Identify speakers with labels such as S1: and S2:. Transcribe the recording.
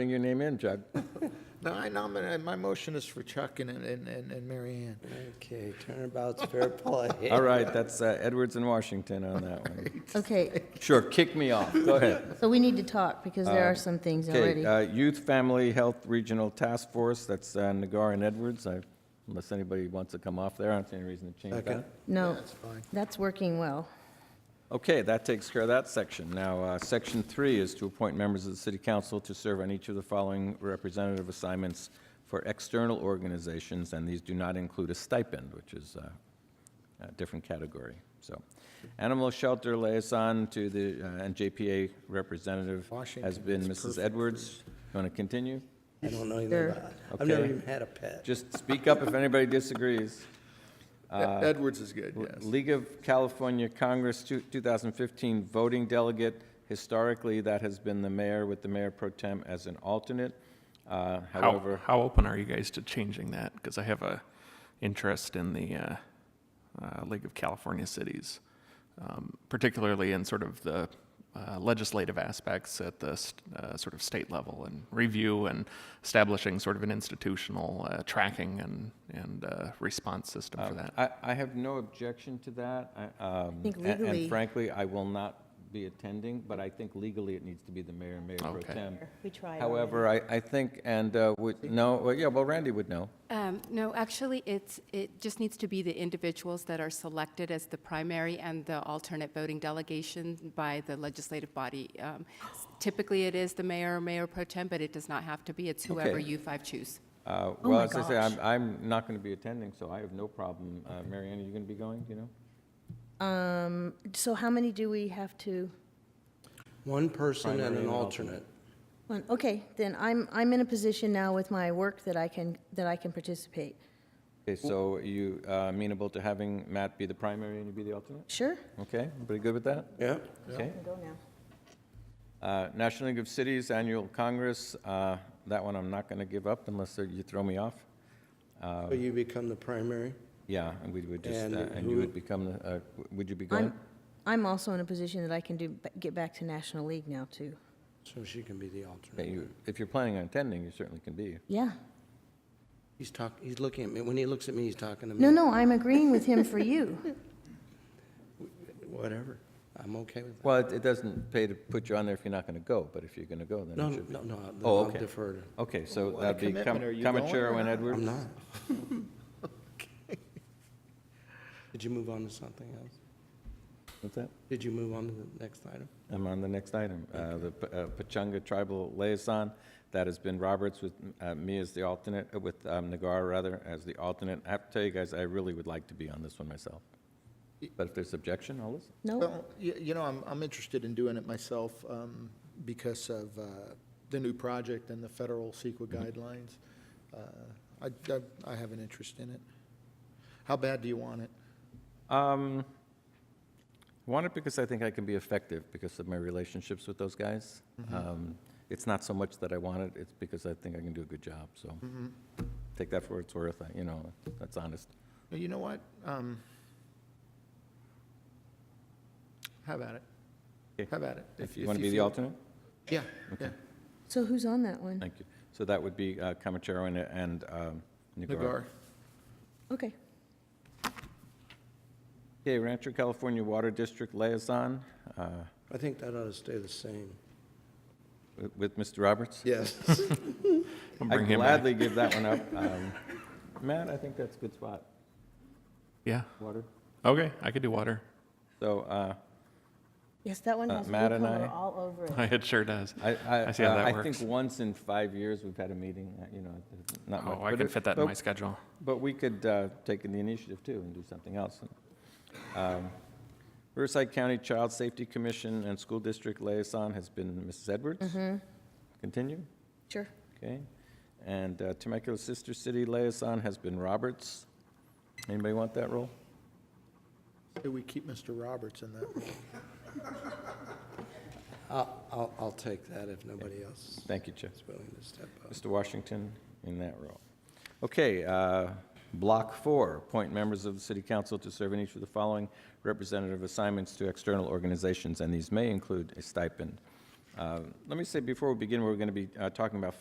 S1: Bring your name in, Judd.
S2: No, I nominate, my motion is for Chuck and, and, and and Mary Ann.
S3: Okay, turnabout's fair play.
S1: All right, that's uh, Edwards and Washington on that one.
S4: Okay,
S1: Sure, kick me off, go ahead.
S4: so we need to talk because there are some things
S1: Um, Okay,
S4: already.
S1: uh, Youth Family Health Regional Task Force, that's uh, Nagar and Edwards. I- Unless anybody wants to come off there, I don't see any reason to change
S3: Second.
S1: that.
S4: No,
S2: That's fine.
S4: that's working well.
S1: Okay, that takes care of that section. Now, uh, section three is to appoint members of the city council to serve on each of the following representative assignments for external organizations, and these do not include a stipend, which is uh, a different category. So, animal shelter liaison to the, uh, and JPA representative has
S2: Washington
S1: been
S2: is perfect
S1: Mrs.
S2: for
S1: Edwards. You want to continue?
S3: I don't know
S4: There.
S3: either. about- I've never
S1: Okay.
S3: even had a pet.
S1: Just speak up if anybody disagrees.
S2: Ed- E-, Edwards is good,
S1: Uh, L-
S2: yes.
S1: League of California Congress two- 2015 voting delegate. Historically, that has been the mayor with the mayor pro tem as an alternate. Uh,
S5: How,
S1: However,
S5: how open are you guys to changing that? Because I have a interest in the uh, uh, League of California Cities, um, particularly in sort of the uh, legislative aspects at the st- uh, sort of state level and review and establishing sort of an institutional uh, tracking and and uh, response system for that.
S1: Uh, I, um, I have no objection to that. I- um,
S4: think
S1: a- And
S4: legally-
S1: frankly, I will not be attending, but I think legally it needs to be the mayor and mayor pro
S5: Okay.
S1: tem.
S4: We tried
S1: However, I, I think, and uh, would, no, well, yeah, well, Randy would know.
S6: Um, No, actually, it's, it just needs to be the individuals that are selected as the primary and the alternate voting delegation by the legislative body. Um, Typically, it is the mayor or mayor pro tem, but it does not have to be. It's whoever
S1: Okay.
S6: you five choose.
S1: Uh,
S4: Oh
S1: Well,
S4: my
S1: as I say, I'm,
S4: gosh.
S1: I'm not going to be attending, so I have no problem. Uh, Mary Ann, are you going to be going, do you know?
S4: Um, so how many do we have to?
S3: One person and
S1: Primary
S3: an
S1: and
S3: alternate.
S4: One, okay, then I'm, I'm in a position now with my work that I can, that I can participate.
S1: Okay, so are you uh, amenable to having Matt be the primary and you be the alternate?
S4: Sure?
S1: Okay, everybody good with that?
S3: Yeah,
S1: Okay.
S4: Go now.
S1: Uh, National League of Cities Annual Congress, uh, that one I'm not going to give up unless uh, you throw me off. Um,
S3: so you become the primary.
S1: Yeah, and we would just,
S3: And
S1: uh, and you
S3: who-
S1: would become, the, uh, w- would you be going?
S4: I'm, I'm also in a position that I can do, get back to National League now too.
S3: So she can be the
S1: Yeah,
S3: alternate.
S1: you- If you're planning on attending, you certainly can be.
S4: Yeah.
S3: He's talk, he's looking at me. When he looks at me, he's talking to me.
S4: No, no, I'm agreeing with him for you.
S3: Whatever. I'm okay with that.
S1: Well, it- it doesn't pay to put you on there if you're not going to go, but if you're going to go,
S3: No,
S1: then it should be.
S3: no, no, I'll-
S1: Oh,
S3: I'll
S1: okay.
S3: defer to.
S1: Okay, so
S2: What a
S1: that'd be
S2: commitment. Are you going or
S1: Comachero and
S2: not?
S3: I'm
S1: Edwards?
S3: not. Did you move on to something else?
S1: What's that?
S3: Did you move on to the next item?
S1: I'm on the next item, uh, the P- uh, Pachanga Tribal Liaison. That has been Roberts with uh, me as the alternate, uh, with um, Nagar, rather, as the alternate. I have to tell you guys, I really would like to be on this one myself. But if there's objection, I'll listen.
S4: No,
S2: Well, you, you know, I'm, I'm interested in doing it myself, um, because of, uh, the new project and the federal CEQA
S1: Mm-hmm.
S2: guidelines. Uh, I, I, I have an interest in it. How bad do you want it?
S1: Um, I want it because I think I can be effective because of my relationships with those guys. Um, It's not so much that I want it, it's because I think I can do a good job, so
S2: Mm-hmm.
S1: take that for what it's worth, I- you know, that's honest.
S2: Well, You know what? Um, how about it?
S1: Okay.
S2: How about it?
S1: If you want to be the
S2: feel-
S1: alternate?
S2: Yeah, yeah.
S4: so who's on that one?
S1: Thank you. So that would be uh, Comachero and- and um, Nagar.
S2: Nagar.
S4: Okay.
S1: Okay, Rancho California Water District Liaison uh,
S3: I think that ought to stay the same.
S1: with- with Mr. Roberts.
S2: Yes.
S5: I'll
S1: I
S5: bring him back.
S1: gladly give that one up. Um, Matt, I think that's a good spot,
S5: Yeah.
S1: water.
S5: Okay, I could do water.
S1: So uh,
S4: Yes, that one
S1: Uh,
S4: has blue
S1: Matt and
S4: color
S1: I-
S4: all over it.
S5: it sure does.
S1: I, I
S5: I see how
S1: uh,
S5: that
S1: I think
S5: works.
S1: once in five years, we've had a meeting, uh, you know, it's not much.
S5: Oh, I
S1: but
S5: can
S1: it-
S5: fit that in my
S1: but-
S5: schedule.
S1: But we could uh, take the initiative too and do something else. Um, Riverside County Child Safety Commission and School District Liaison has been Mrs. Edwards. Continue,
S4: Sure.
S1: okay. And uh, Temecula Sister City Liaison has been Roberts. Anybody want that role?
S2: Do we keep Mr. Roberts in that?
S3: I'll, I'll, I'll take that if nobody else
S1: Thank you, Chip.
S3: is willing to step up.
S1: Mr. Washington in that role. Okay, uh, Block 4, appoint members of the City Council to serve in each of the following representative assignments to external organizations, and these may include a stipend. Uh, Let me say, before we begin, we're going to be uh, talking about